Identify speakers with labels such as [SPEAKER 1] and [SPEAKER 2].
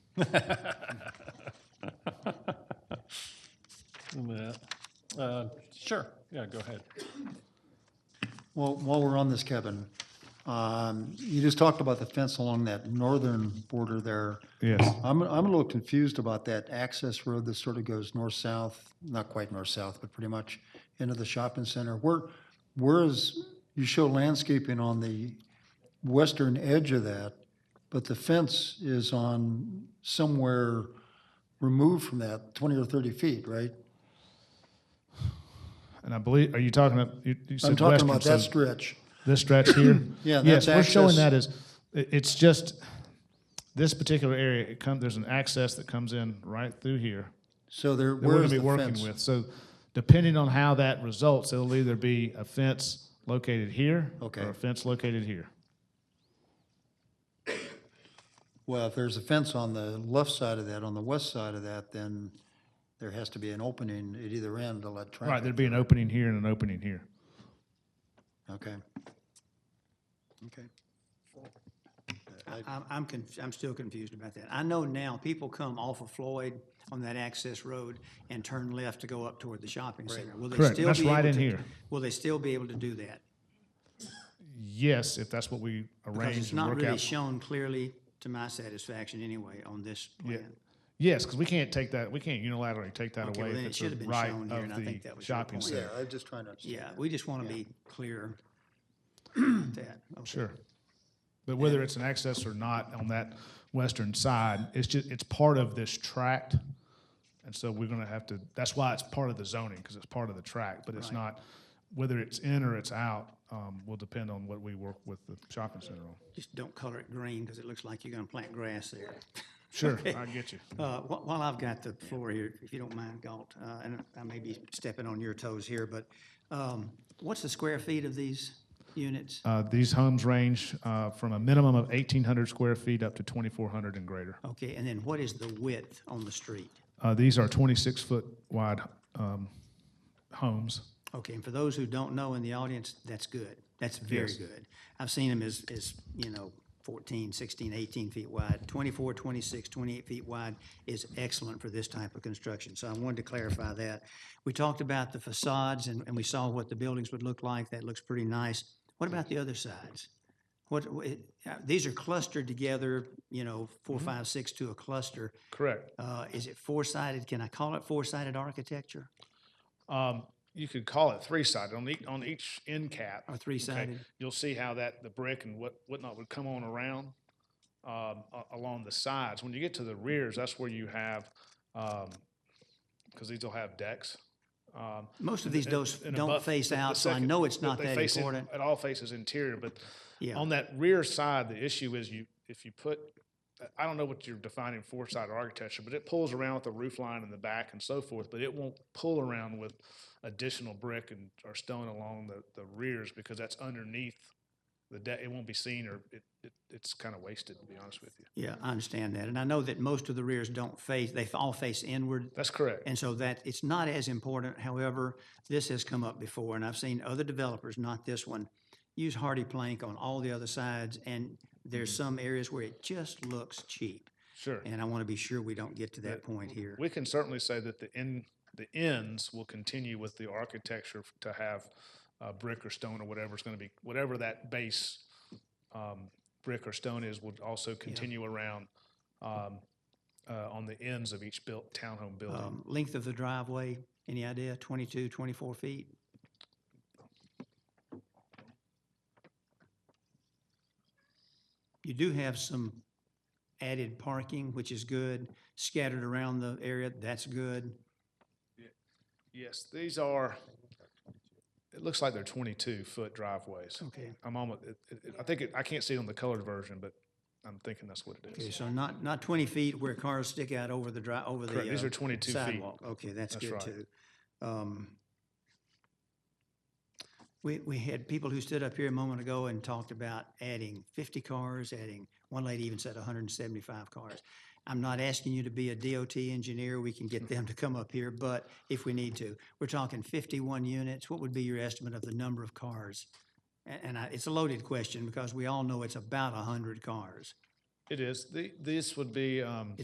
[SPEAKER 1] Yeah. Uh, Sure, yeah, go ahead.
[SPEAKER 2] Well, while we're on this, Kevin, um, you just talked about the fence along that northern border there.
[SPEAKER 3] Yes.
[SPEAKER 2] I'm, I'm a little confused about that access road that sort of goes north-south, not quite north-south, but pretty much into the shopping center. Where, where is, you show landscaping on the western edge of that, but the fence is on somewhere removed from that, 20 or 30 feet, right?
[SPEAKER 3] And I believe, are you talking about, you, you
[SPEAKER 2] I'm
[SPEAKER 3] said
[SPEAKER 2] talking
[SPEAKER 3] western,
[SPEAKER 2] about
[SPEAKER 3] so
[SPEAKER 2] that stretch.
[SPEAKER 3] this stretch here?
[SPEAKER 2] Yeah,
[SPEAKER 3] Yes,
[SPEAKER 2] that's
[SPEAKER 3] we're showing
[SPEAKER 2] access.
[SPEAKER 3] that as, it- it's just, this particular area, it come, there's an access that comes in right through here
[SPEAKER 2] So there,
[SPEAKER 3] that we're
[SPEAKER 2] where
[SPEAKER 3] gonna
[SPEAKER 2] is
[SPEAKER 3] be
[SPEAKER 2] the
[SPEAKER 3] working
[SPEAKER 2] fence?
[SPEAKER 3] with. So depending on how that results, it'll either be a fence located here
[SPEAKER 2] Okay.
[SPEAKER 3] or a fence located here.
[SPEAKER 2] Well, if there's a fence on the left side of that, on the west side of that, then there has to be an opening at either end to let traffic.
[SPEAKER 3] Right, there'd be an opening here and an opening here.
[SPEAKER 2] Okay. Okay.
[SPEAKER 4] I'm, I'm, conf- I'm still confused about that. I know now, people come off of Floyd on that access road and turn left to go up toward the shopping center. Will they
[SPEAKER 3] Correct.
[SPEAKER 4] still
[SPEAKER 3] That's
[SPEAKER 4] be able
[SPEAKER 3] right in
[SPEAKER 4] to-
[SPEAKER 3] here.
[SPEAKER 4] Will they still be able to do that?
[SPEAKER 3] Yes, if that's what we
[SPEAKER 4] Because
[SPEAKER 3] arrange
[SPEAKER 4] it's
[SPEAKER 3] and
[SPEAKER 4] not
[SPEAKER 3] work
[SPEAKER 4] really
[SPEAKER 3] out.
[SPEAKER 4] shown clearly to my satisfaction anyway on this plan.
[SPEAKER 3] Yes, because we can't take that, we can't unilaterally take that
[SPEAKER 4] Okay, well,
[SPEAKER 3] away
[SPEAKER 4] then
[SPEAKER 3] if
[SPEAKER 4] it
[SPEAKER 3] it's
[SPEAKER 4] should have
[SPEAKER 3] a
[SPEAKER 4] been
[SPEAKER 3] right
[SPEAKER 4] shown here, and I
[SPEAKER 3] of the
[SPEAKER 4] think that was your
[SPEAKER 3] shopping
[SPEAKER 4] point.
[SPEAKER 2] Yeah,
[SPEAKER 3] center.
[SPEAKER 2] I'm just trying to understand.
[SPEAKER 4] Yeah, we just want to be clear about that. Okay.
[SPEAKER 3] Sure. But whether it's an access or not on that western side, it's just, it's part of this tract. And so we're gonna have to, that's why it's part of the zoning, because it's part of the tract, but it's not, whether it's in or it's out, um, will depend on what we work with the shopping center on.
[SPEAKER 4] Just don't color it green because it looks like you're going to plant grass there.
[SPEAKER 3] Sure, I get you.
[SPEAKER 4] Uh, wh- While I've got the floor here, if you don't mind, Galt, uh, and I may be stepping on your toes here, but um, what's the square feet of these units?
[SPEAKER 3] Uh, these homes range, uh, from a minimum of eighteen hundred square feet up to twenty-four hundred and greater.
[SPEAKER 4] Okay, and then what is the width on the street?
[SPEAKER 3] Uh, these are twenty-six foot wide, um, homes.
[SPEAKER 4] Okay, and for those who don't know in the audience, that's good. That's very good. I've seen them as, as, you know, 14, 16, 18 feet wide. 24, 26, 28 feet wide is excellent for this type of construction. So I wanted to clarify that. We talked about the facades and, and we saw what the buildings would look like. That looks pretty nice. What about the other sides? What, wh- it- uh, these are clustered together, you know, four, five, six to a cluster.
[SPEAKER 3] Correct.
[SPEAKER 4] Uh, Is it four-sided? Can I call it four-sided architecture
[SPEAKER 3] Um, you could call it three-sided on each, on each end cap.
[SPEAKER 4] or
[SPEAKER 3] okay,
[SPEAKER 4] three-sided?
[SPEAKER 3] You'll see how that, the brick and what, whatnot would come on around, um, a- along the sides. When you get to the rears, that's where you have, um, because these will have decks. Um,
[SPEAKER 4] Most of these
[SPEAKER 3] and-
[SPEAKER 4] dos
[SPEAKER 3] and
[SPEAKER 4] don't
[SPEAKER 3] above-
[SPEAKER 4] face
[SPEAKER 3] the- the
[SPEAKER 4] out, so I
[SPEAKER 3] second-
[SPEAKER 4] know it's
[SPEAKER 3] the-
[SPEAKER 4] not
[SPEAKER 3] they
[SPEAKER 4] that
[SPEAKER 3] face in-
[SPEAKER 4] important.
[SPEAKER 3] It all faces interior, but
[SPEAKER 4] Yeah.
[SPEAKER 3] on that rear side, the issue is you, if you put, I don't know what you're defining four-sided architecture, but it pulls around with the roof line in the back and so forth, but it won't pull around with additional brick and, or stone along the, the rears because that's underneath the deck. It won't be seen or it, it, it's kind of wasted, to be honest with you.
[SPEAKER 4] Yeah, I understand that. And I know that most of the rears don't face, they all face inward.
[SPEAKER 3] That's correct.
[SPEAKER 4] And so that, it's not as important. However, this has come up before, and I've seen other developers, not this one, use hardy plank on all the other sides, and
[SPEAKER 3] Mm.
[SPEAKER 4] there's some areas where it just looks cheap.
[SPEAKER 3] Sure.
[SPEAKER 4] And I want to be sure we don't get to that point here.
[SPEAKER 3] We can certainly say that the end, the ends will continue with the architecture f- to have uh, brick or stone or whatever it's going to be, whatever that base um, brick or stone is will also continue around um, uh, on the ends of each built, townhome building.
[SPEAKER 4] Um, Length of the driveway, any idea? 22, 24 feet? You do have some added parking, which is good, scattered around the area, that's good.
[SPEAKER 3] Yes, these are, it looks like they're 22-foot driveways.
[SPEAKER 4] Okay.
[SPEAKER 3] I'm almost, it- it- it- I think, it- I can't see it on the colored version, but I'm thinking that's what it
[SPEAKER 4] Okay,
[SPEAKER 3] is.
[SPEAKER 4] so not, not 20 feet where cars stick out over the dri, over the.
[SPEAKER 3] Correct, these
[SPEAKER 4] uh,
[SPEAKER 3] are 22 feet.
[SPEAKER 4] sidewalk, okay, that's
[SPEAKER 3] That's
[SPEAKER 4] good
[SPEAKER 3] right.
[SPEAKER 4] too. Um, We, we had people who stood up here a moment ago and talked about adding fifty cars, adding, one lady even said hundred and seventy-five cars. I'm not asking you to be a DOT engineer, we can get
[SPEAKER 3] Hmm.
[SPEAKER 4] them to come up here, but if we need to. We're talking fifty-one units, what would be your estimate of the number of cars? A- And, I, it's a loaded question because we all know it's about hundred cars.
[SPEAKER 3] It is, The- this would be. um,